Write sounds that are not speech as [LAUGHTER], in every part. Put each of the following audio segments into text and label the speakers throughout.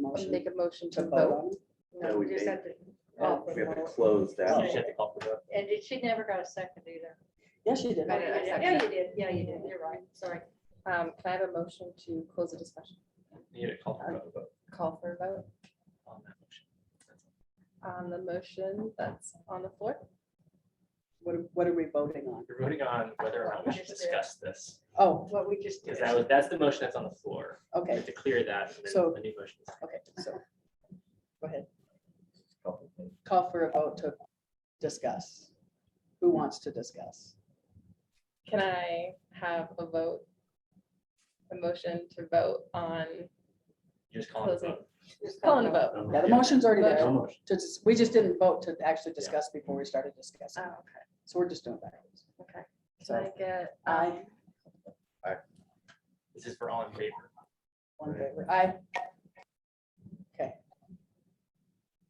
Speaker 1: motion.
Speaker 2: Make a motion to
Speaker 3: to vote
Speaker 2: vote.
Speaker 3: on.
Speaker 1: No,
Speaker 4: No,
Speaker 1: we
Speaker 4: we just
Speaker 1: made-
Speaker 4: have to.
Speaker 3: Oh,
Speaker 4: call
Speaker 3: we
Speaker 4: for
Speaker 1: We have to
Speaker 4: vote.
Speaker 1: close
Speaker 4: Oh.
Speaker 1: that.
Speaker 4: Yeah.
Speaker 5: Well,
Speaker 4: And it- she never got a second either.
Speaker 3: Yeah, she did.
Speaker 2: I did, I seconded
Speaker 4: Yeah,
Speaker 2: it.
Speaker 4: you did, yeah, you did, you're right, sorry.
Speaker 2: Um, can I have a motion to close the discussion?
Speaker 5: Need a call for a vote
Speaker 2: Call for a vote
Speaker 5: on that motion.
Speaker 2: on the motion that's on the floor?
Speaker 3: What, are- what are we voting on?
Speaker 5: You're voting on whether or not we should
Speaker 4: Just, uh,
Speaker 5: discuss this,
Speaker 3: Oh,
Speaker 4: What we just did.
Speaker 5: because that was, that's the motion that's on the floor. We
Speaker 3: okay,
Speaker 5: have to clear that, and
Speaker 3: So-
Speaker 5: then the new motion.
Speaker 3: okay, so. Go ahead.
Speaker 1: Couple things.
Speaker 3: Call for a vote to discuss. Who wants to discuss?
Speaker 2: Can I have a vote? A motion to vote on,
Speaker 5: You just call it a
Speaker 2: Closing.
Speaker 5: vote.
Speaker 4: Just
Speaker 2: calling a
Speaker 4: call
Speaker 2: vote.
Speaker 3: Yeah, the motion's already
Speaker 5: Yeah,
Speaker 3: there.
Speaker 5: no motion.
Speaker 3: To dis- We just didn't vote to actually discuss before we started discussing.
Speaker 2: Oh,
Speaker 3: So we're just doing backwards.
Speaker 2: Okay. Can I
Speaker 3: So
Speaker 2: get?
Speaker 3: I,
Speaker 2: um,
Speaker 5: This is for all in favor.
Speaker 3: one favor, I. Okay.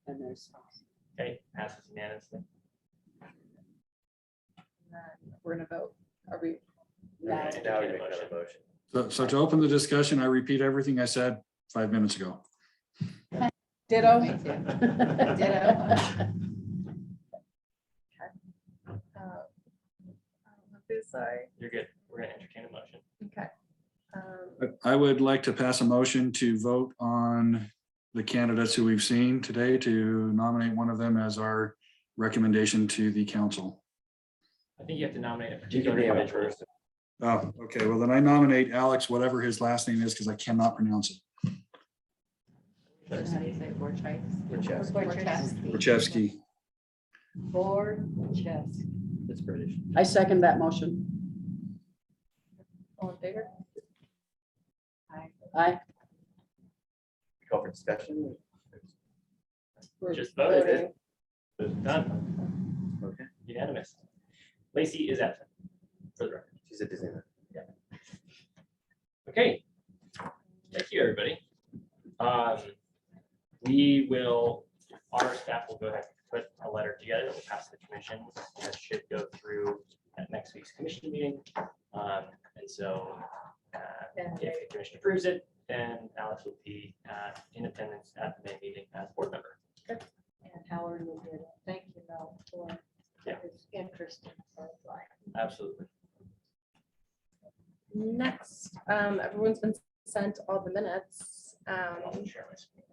Speaker 3: And there's,
Speaker 5: Okay, passes unanimously.
Speaker 2: and then We're gonna vote. Are we?
Speaker 3: now,
Speaker 5: Okay.
Speaker 1: Now we make another motion.
Speaker 6: So, so to open the discussion, I repeat everything I said five minutes ago.
Speaker 3: ditto. [LAUGHS]
Speaker 2: Ditto. uh, I'm really Sorry.
Speaker 5: You're good. We're gonna entertain a motion.
Speaker 2: Okay. Um,
Speaker 6: But I would like to pass a motion to vote on the candidates who we've seen today to nominate one of them as our recommendation to the council.
Speaker 5: I think you have to nominate a
Speaker 1: You can
Speaker 5: particular
Speaker 1: name it
Speaker 5: individual.
Speaker 1: first.
Speaker 6: Oh, okay. Well, then I nominate Alex, whatever his last name is, because I cannot pronounce
Speaker 2: so
Speaker 6: it.
Speaker 2: How do you say Borchers?
Speaker 1: Wojciech.
Speaker 6: Wachewski.
Speaker 4: Board chest.
Speaker 1: It's British.
Speaker 3: I second that motion.
Speaker 2: All in favor?
Speaker 3: I,
Speaker 1: Call for discussion.
Speaker 2: We're
Speaker 5: Just voted.
Speaker 2: voting.
Speaker 5: Done.
Speaker 1: Okay.
Speaker 5: Unanimous. Lacey is absent. For the record.
Speaker 1: She's at Disneyland.
Speaker 5: Okay. Thank you, everybody. Um, We will, our staff will go ahead and put a letter together that will pass to the commission. That should go through at next week's commission meeting. Um, And so uh,
Speaker 4: And
Speaker 5: if the commission approves it, then Alex will be uh, in attendance at the May meeting as board member.
Speaker 4: and Howard will do it. Thank you, Mel, for
Speaker 5: Yeah.
Speaker 4: this interest in Southline.
Speaker 5: Absolutely.
Speaker 2: Next, um, everyone's been sent all the minutes.
Speaker 5: I'll
Speaker 2: Um,
Speaker 5: share my screen.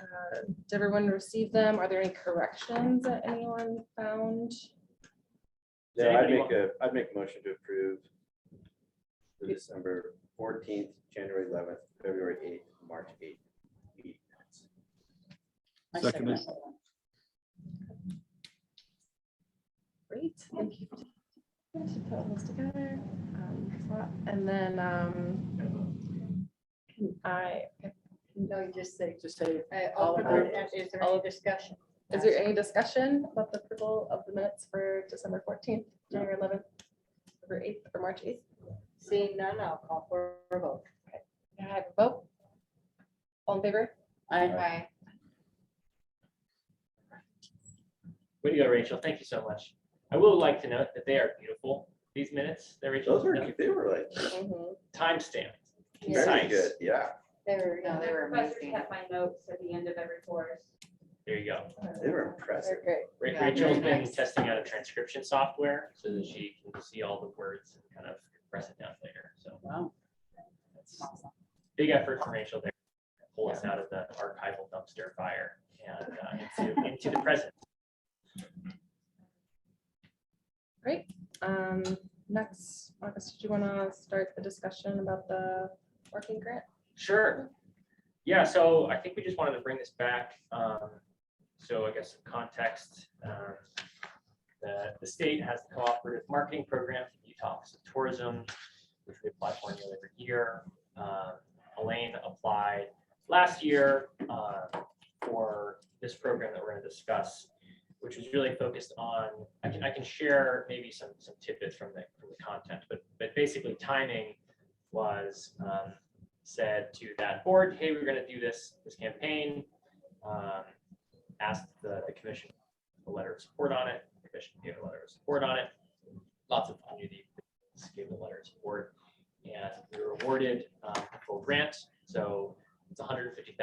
Speaker 2: uh, Did everyone receive them? Are there any corrections that anyone found?
Speaker 5: Does
Speaker 1: Yeah, I'd
Speaker 5: anybody
Speaker 1: make
Speaker 5: want-
Speaker 1: a, I'd make a motion to approve the December fourteenth, January eleventh, February eighth, March eighth.
Speaker 3: I second
Speaker 6: Seconded.
Speaker 3: that one.
Speaker 2: Great, thank you. for taking the time To put all this together. Um, so- And then, um, can I,
Speaker 4: No, you just say,
Speaker 3: Just say,
Speaker 4: uh,
Speaker 3: All
Speaker 4: all
Speaker 3: of
Speaker 4: of
Speaker 3: our-
Speaker 4: it, is there
Speaker 2: all
Speaker 4: any
Speaker 2: of-
Speaker 4: discussion?
Speaker 2: is there any discussion about the approval of the minutes for December fourteenth, January eleventh, or eighth, or March eighth?
Speaker 4: Seeing none, I'll call for a vote.
Speaker 2: Can I have a vote? All in favor?
Speaker 3: I,
Speaker 4: Aye.
Speaker 5: Way to go, Rachel. Thank you so much. I will like to note that they are beautiful, these minutes. They're Rachel.
Speaker 1: Those were, they were like
Speaker 5: Timestamp.
Speaker 1: very
Speaker 5: Nice.
Speaker 1: good, yeah.
Speaker 4: They were,
Speaker 7: No, they were amazing.
Speaker 4: my notes at the end of every course.
Speaker 5: There you go.
Speaker 1: They were impressive.
Speaker 2: They're great.
Speaker 5: Ra-
Speaker 7: Yeah,
Speaker 5: Rachel's
Speaker 7: very
Speaker 5: been
Speaker 7: nice.
Speaker 5: testing out a transcription software so that she can see all the words and kind of press it down later. So
Speaker 3: wow.
Speaker 5: that's big effort from Rachel there. Pull us out of the archival dumpster fire and uh, into, into the present.
Speaker 2: Great. Um, next, Marcus, did you want to start the discussion about the working grant?
Speaker 5: Sure. Yeah, so I think we just wanted to bring this back. um, So I guess some context. um, The, the state has the cooperative marketing program for the Utah Office of Tourism, which we apply for nearly every year. Um, Elaine applied last year uh, for this program that we're going to discuss, which is really focused on, I can, I can share maybe some, some tidbits from the, from the content, but, but basically timing was um, said to that board, hey, we're gonna do this, this campaign. um, Asked the, the commission a letter of support on it, the commission gave a letter of support on it. Lots of community gave a letter of support. And we were awarded um, a full grant, so it's $150,000